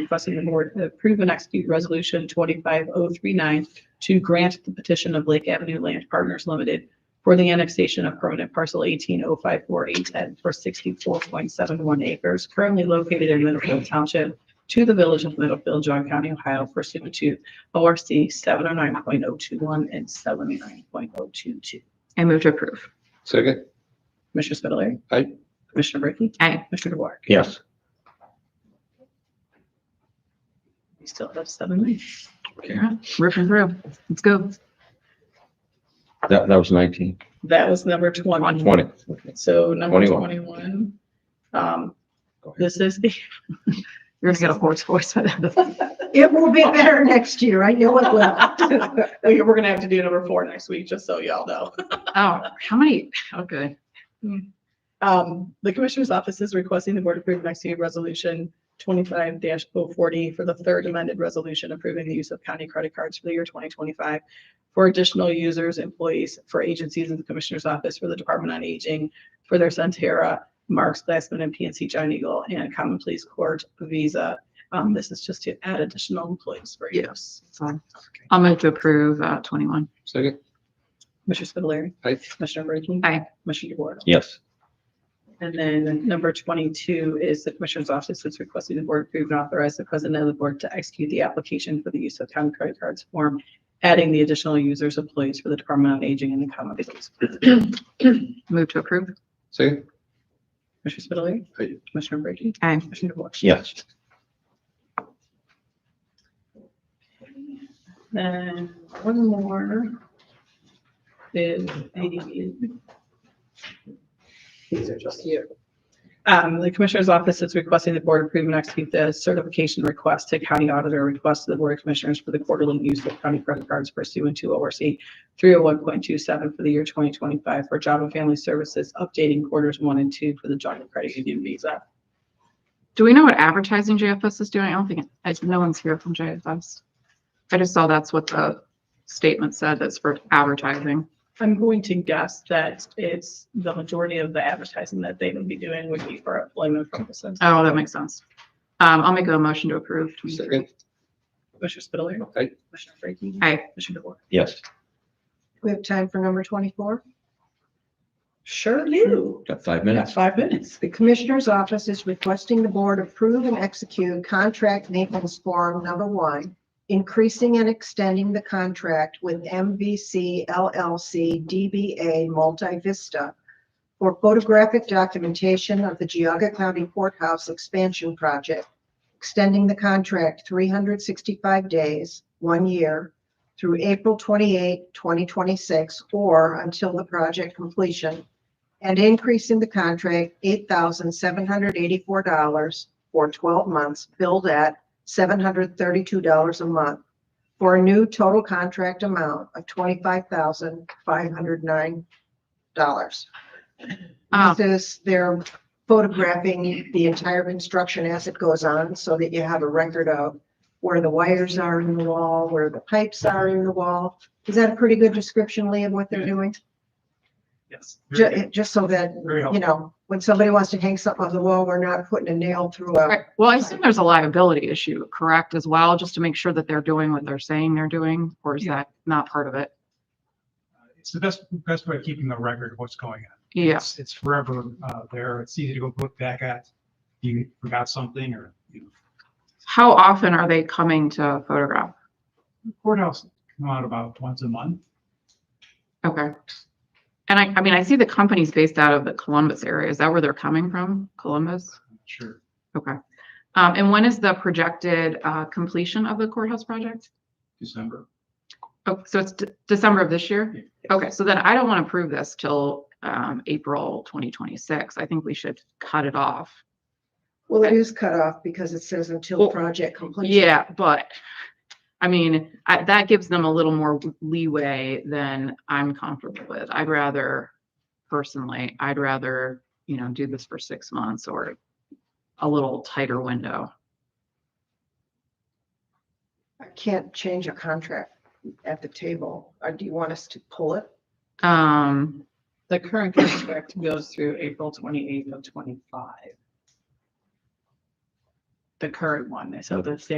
requesting the board approve and execute resolution twenty-five oh three nine to grant the petition of Lake Avenue Land Partners Limited for the annexation of permanent parcel eighteen oh five four eight ten for sixty-four point seven one acres currently located in Middlefield Township to the village of Middlefield, John County, Ohio pursuant to ORC seven oh nine point oh two one and seven oh nine point oh two two. I move to approve. Second? Commissioner Spudler. Aye. Commissioner Brinkley. Aye. Commissioner DeWort. Yes. We still have seven minutes. Ripping through. Let's go. That, that was nineteen. That was number twenty. Twenty. So number 21. twenty-one. Um, Go ahead. this is the, You're gonna get a hoarse voice by then. It will be better next year. I know it will. we- we're gonna have to do number four next week, just so y'all know. Oh, how many? Okay. Um, the commissioner's office is requesting the board approve and execute resolution twenty-five 40 for the third amended resolution approving the use of county credit cards for the year twenty twenty-five for additional users, employees, for agencies in the commissioner's office, for the Department on Aging, for their Centera, Marks, Glassman, and PNC John Eagle, and Common Police Court Visa. Um, this is just to add additional employees for use. Fine. I'll move to approve, uh, twenty-one. Second? Commissioner Spudler. Aye. Commissioner Brinkley. Aye. Commissioner DeWort. Yes. And then number twenty-two is the Commissioner's Office is requesting the Board approve and authorize the President of the Board to execute the application for the use of county credit cards form, adding the additional users employees for the Department on Aging and the Common Police. Move to approve. Second? Commissioner Spitaleri? Aye. Commissioner Brady? Aye. Commissioner DeWort? Yes. Then one more is the. These are just here. Um, the Commissioner's Office is requesting the Board approve and execute the certification request to County Auditor request to the Board of Commissioners for the quarterly use of county credit cards pursuant to ORC three oh one point two seven for the year twenty twenty-five for Job and Family Services, updating quarters one and two for the Job and Credit Union Visa. Do we know what advertising JFS is doing? I don't think, I, no one's here from JFS. I just saw that's what the statement said, that's for advertising. I'm going to guess that it's the majority of the advertising that they would be doing would be for employment purposes. Oh, that makes sense. Um, I'll make a motion to approve. 23. Second? Commissioner Spitaleri? Aye. Commissioner Brinkley? Aye. Commissioner DeWort? Yes. We have time for number twenty-four. Sure do. Got five Got minutes. five minutes. The Commissioner's Office is requesting the Board approve and execute Contract Naples Form Number One, increasing and extending the contract with MVC LLC DBA Multi Vista for photographic documentation of the Geauga County Courthouse Expansion Project, extending the contract three hundred sixty-five days, one year, through April 28, 2026, or until the project completion and increasing the contract eight thousand seven hundred eighty-four dollars for twelve months, billed at seven hundred thirty-two dollars a month for a new total contract amount of twenty-five thousand five hundred nine dollars. Um, This is, they're photographing the entire construction as it goes on so that you have a record of where the wires are in the wall, where the pipes are in the wall. Is that a pretty good description, Lee, of what they're doing? Yes. Very Ju- just so that very you helpful. know, when somebody wants to hang something on the wall, we're not putting a nail through a, right. Well, I assume there's a liability issue, correct, as well, just to make sure that they're doing what they're saying they're doing, or is that not part of it? It's the best, best way of keeping a record of what's going on. Yeah, It's- It's forever uh, there. It's easy to go look back at. You forgot something or you know. how often are they coming to photograph? courthouse come out about once a month. Okay. And I, I mean, I see the company's based out of the Columbus area. Is that where they're coming from? Columbus? I'm not Sure. Okay. Um, and when is the projected, uh, completion of the courthouse project? December. Oh, so it's De- December of this year? Okay, so then I don't want to approve this till, um, April twenty twenty-six. I think we should cut it off. well, it is cut off because it says until Well, project completion. Yeah, but, I mean, I, that gives them a little more leeway than I'm comfortable with. I'd rather, personally, I'd rather, you know, do this for six months or a little tighter window. I can't change a contract at the table. Or do you want us to pull it? Um, The current contract goes through April twenty-eighth of twenty-five. the current one. So the state